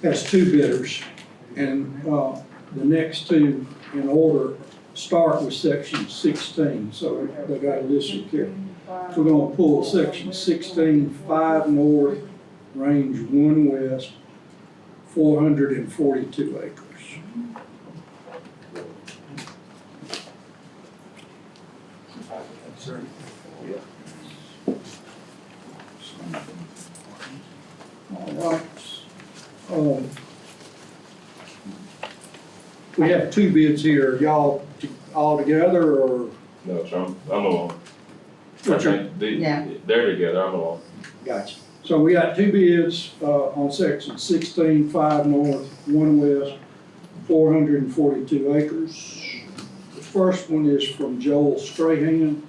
That's two bidders. And, uh, the next two in order start with section sixteen, so they got it listed here. So we're gonna pull section sixteen, five north, range one west, four hundred and forty-two acres. All right. Um, We have two bids here, y'all t- all together or? No, sir, I'm, I'm alone. I think they- Yeah. They're together, I'm alone. Gotcha. So we got two bids, uh, on section sixteen, five north, one west, four hundred and forty-two acres. The first one is from Joel Strahan.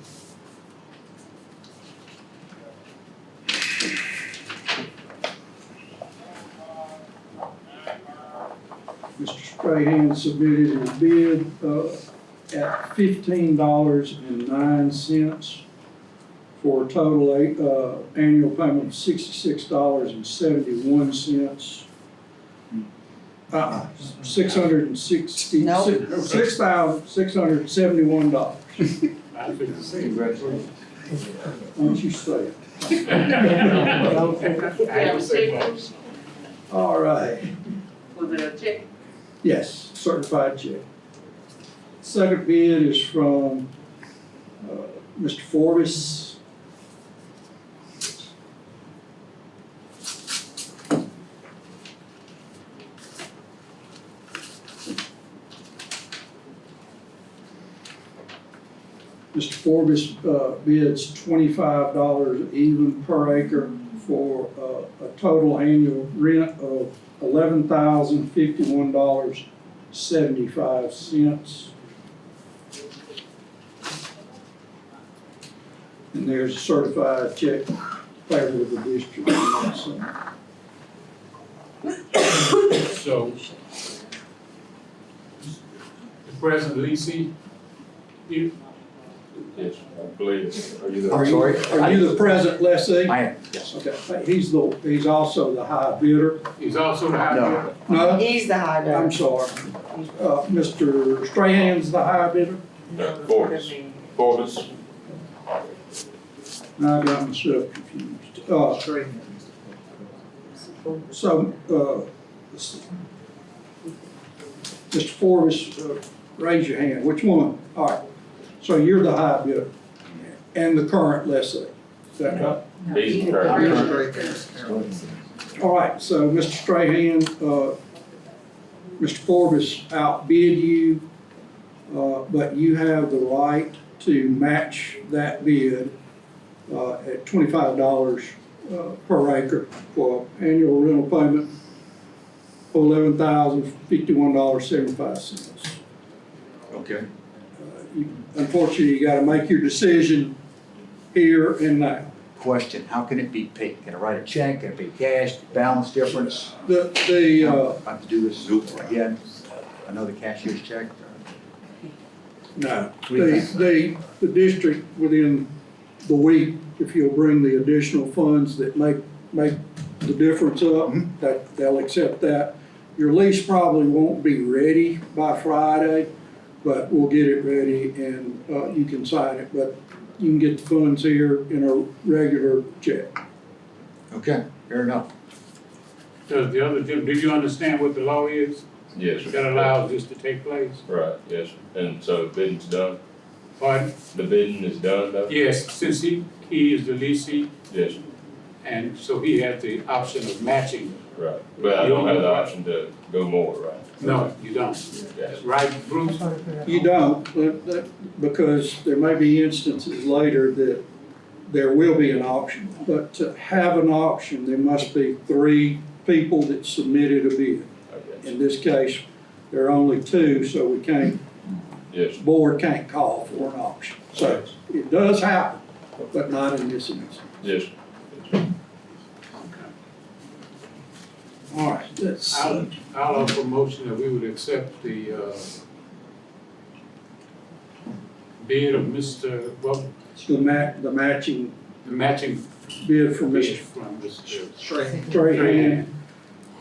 Mr. Strahan submitted his bid, uh, at fifteen dollars and nine cents for a total, uh, annual payment of sixty-six dollars and seventy-one cents. Uh, six hundred and sixty, Nope. six thousand, six hundred and seventy-one dollars. Congratulations. Don't you say it. Yeah, we say All right, Was it a check? yes, certified check. Second bid is from, uh, Mr. Forbes. Mr. Forbes, uh, bids twenty-five dollars even per acre for, uh, a total annual rent of eleven thousand fifty-one dollars seventy-five cents. And there's a certified check payable to the district. So, So, President Lisi, you, Yes, I believe it. Are you there? Are you- sorry? Are you the present lessee? I am, yes. Okay, he's the, he's also the high bidder. is also the high No. bidder? No, He's the high dollar. I'm sorry. Uh, Mr. Strahan's the high bidder? No, Forbes. Forbes, I got myself confused. Uh, So, uh, s- Mr. Forbes, uh, raise your hand, which one? All right, so you're the high bidder and the current lessee, is that right? he's the He's current. the high bidder. All right, so Mr. Strahan, uh, Mr. Forbes outbid you, uh, but you have the right to match that bid uh, at twenty-five dollars uh, per acre for annual rental payment of eleven thousand fifty-one dollars seventy-five cents. Okay. Unfortunately, you gotta make your decision here and now. Question, how can it be paid? Can I write a check? Can it be cash, balance difference? The, the, uh, I have to do this again, another cashier's check? No, We- the, the, the district within the week, if you'll bring the additional funds that make, make the difference up, Mhm. that, they'll accept that. Your lease probably won't be ready by Friday, but we'll get it ready and, uh, you can sign it, but you can get the funds here in a regular check. Okay, fair enough. Does uh, the other, do do you understand what the law is Yes, that sir. allows this to take place? Right, yes, sir. and so the bidding's done, Pardon? the bidding is done, though? Yes, since he, he is the leasing, Yes, sir. and so he has the option of matching. right, but I don't have the option to go more, right? No, you don't. Yes, Right, Bruce? You don't, but- but- because there may be instances later that there will be an auction. But to have an auction, there must be three people that submitted a bid. okay, In this case, there are only two, so we can't, yes, sir. board can't call for an auction. So it does happen, but not in this instance. yes, sir. Yes, sir. All right, let's see. I'll, I'll offer a motion that we would accept the, uh, bid of Mr., well, The ma, the matching the matching bid for bid Mr. from Mr. Strahan